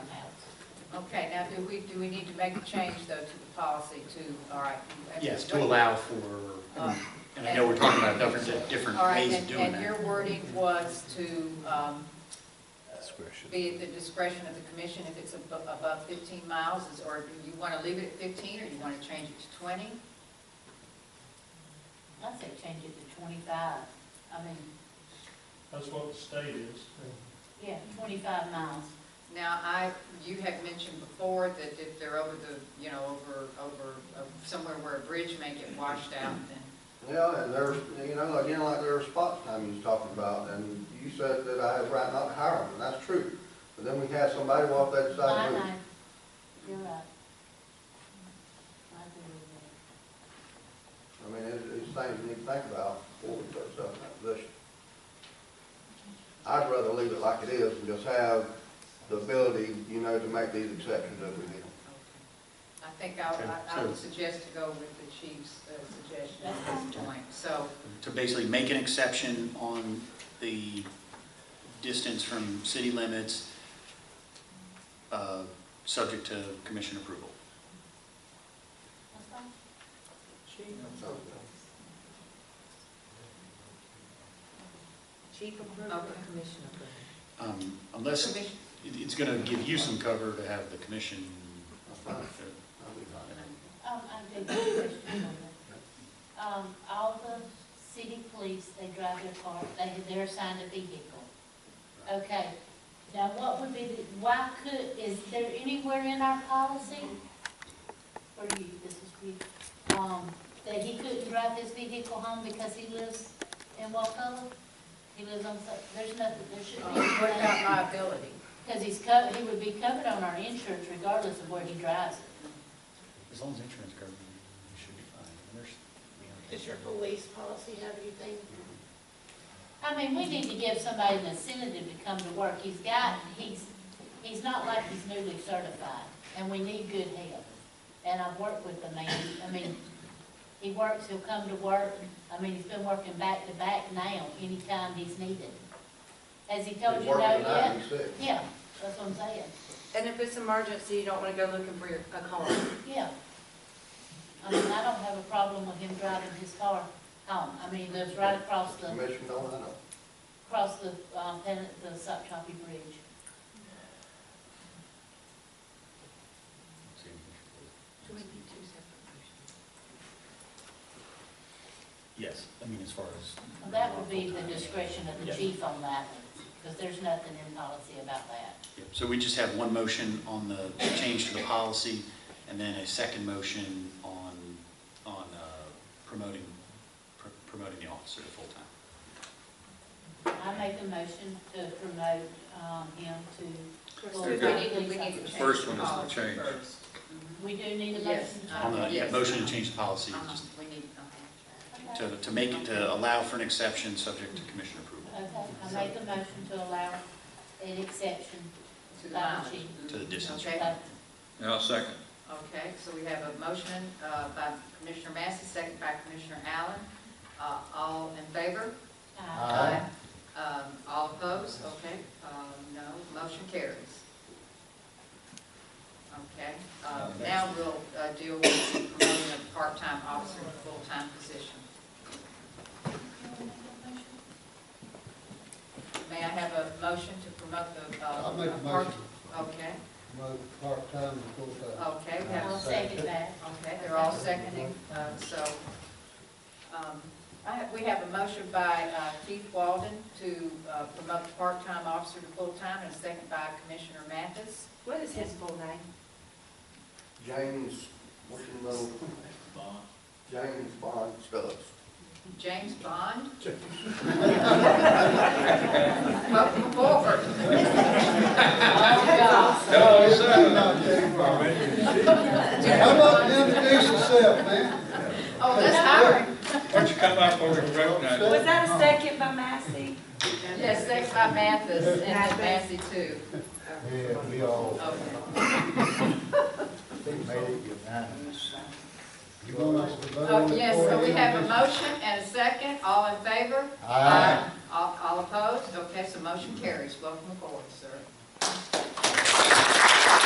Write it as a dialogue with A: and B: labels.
A: do we, do we need to make a change, though, to the policy to, all right? that's-
B: Yes, to allow for,
A: Uh,
B: and I know we're talking about different, different
A: All right,
B: ways of
A: and,
B: doing
A: and
B: that.
A: your wording was to um,
C: Discretion.
A: be at the discretion of the commission if it's abo- above 15 miles, is- or do you want to leave it at 15, or do you want to change it to 20?
D: I'd say change it to twenty-five, I mean,
E: That's what the state is.
D: yeah, twenty-five miles.
A: Now, I, you had mentioned before that if they're over the, you know, over, over, uh, somewhere where a bridge may get washed out, then,
F: Yeah, and there's, you know, again, like there are spot time you was talking about, and you said that I had a right not to hire them, and that's true. But then we had somebody walk that
D: I
F: side road.
D: know. You're right. I agree with
F: I mean, it's, it's things you need to think about before we put ourselves in that position. I'd rather leave it like it is and just have the ability, you know, to make these exceptions if we need them.
A: I think I, I- I would
B: So-
A: suggest to go with the chief's uh, suggestion at
D: That's
A: this point. So,
B: To basically make an exception on the distance from city limits, uh, subject to commission approval.
D: that.
F: So,
G: Chief approved
A: Okay.
G: or commission approved?
B: Um, Unless, it-
A: commission,
B: it's going to give you some cover to have the commission. uh,
F: That's fine. I'll be fine.
D: Um, I did have a question on that. Um, all the city police, they drive their car, they, they're assigned a vehicle. Okay, now what would be the, why could, is there anywhere in our policy? For you, this is for you, um, that he couldn't drive his vehicle home because he lives in Wacolo? He lives on, Sou- there's nothing, there
A: uh,
D: shouldn't be.
A: what about liability?
D: Because he's co, he would be covered on our insurance regardless of where he drives it.
B: As long as insurance covers it, you should be fine. And there's-
H: Does your police policy have anything?
D: I mean, we need to give somebody an incentive to come to work. He's got, he's, he's not like he's newly certified, and we need good help. And I've worked with the man, I mean, he works, he'll come to work, I mean, he's been working back to back now, anytime he's needed. Has he told
F: He's
D: you no
F: working tonight,
D: yet?
F: he's sick.
D: Yeah, that's what I'm saying,
G: And if it's emergency, you don't want to go looking for your, a car.
D: yeah. I mean, I don't have a problem with him driving his car home, I mean, he lives right across the
F: Commission don't, I know.
D: across the, uh, Pen- the Soptopi Bridge.
G: Do we need two separate motions?
B: Yes, I mean, as far as.
D: Well, that would be the discretion of the
B: Yeah.
D: chief on that, because there's nothing in policy about that.
B: Yep, So we just have one motion on the change to the policy, and then a second motion on, on uh, promoting, pr- promoting the officer to full-time.
D: I make a motion to promote, um, him to,
A: We
D: Very
A: need
D: good.
A: to, we need to change.
C: First one is the
A: policy
C: change.
A: first. Mm-hmm.
D: we do need a
A: Yes,
D: motion.
A: uh,
B: On the, yeah,
A: Yes.
B: motion to change the policy,
A: Uh-huh,
B: just
A: We need, uh-huh.
D: Okay,
B: to, to make, it to allow for an exception subject to commission approval
D: Okay, I make a motion to allow an exception.
A: To the
D: By the
A: mileage.
B: to the distance.
A: Okay.
D: Uh,
C: Now, second.
A: Okay, so we have a motion uh, by Commissioner Massey, second by Commissioner Allen. Uh, All in favor?
D: uh,
A: Um, All opposed? Okay, um, no, motion carries. Okay, um, now we'll uh, deal with the promoting of part-time officer to full-time position. May I have a motion to promote the? uh,
I: I'll make a
A: part-
I: motion,
A: Okay,
I: move part-time to full-time.
A: okay, we have a
D: I'll second that.
A: Okay, they're all seconding, uh, so, um, I have- we have a motion by uh, Keith Walden to uh, promote the part-time officer to full-time, and a second by Commissioner Mathis.
G: What is his full name?
F: James, what's his name? James Bond Phillips.
A: James Bond? Welcome forward. Oh,
I: No, it's not Jake Brown. How about you introduce yourself, man?
A: God. Oh, that's hiring.
C: Why don't you come up over and recognize?
G: Was that a second by Massey?
A: Yes, second by Mathis, and Massey too.
I: Yeah, we all,
A: Okay.
I: they made it unanimous. You want us to vote on
A: Oh,
I: it?
A: yes,
I: before
A: so we
I: they
A: have a
I: introduce-
A: motion and a second, all in favor?
I: Aye.
A: All, all opposed? Okay, so motion carries. Welcome aboard, sir.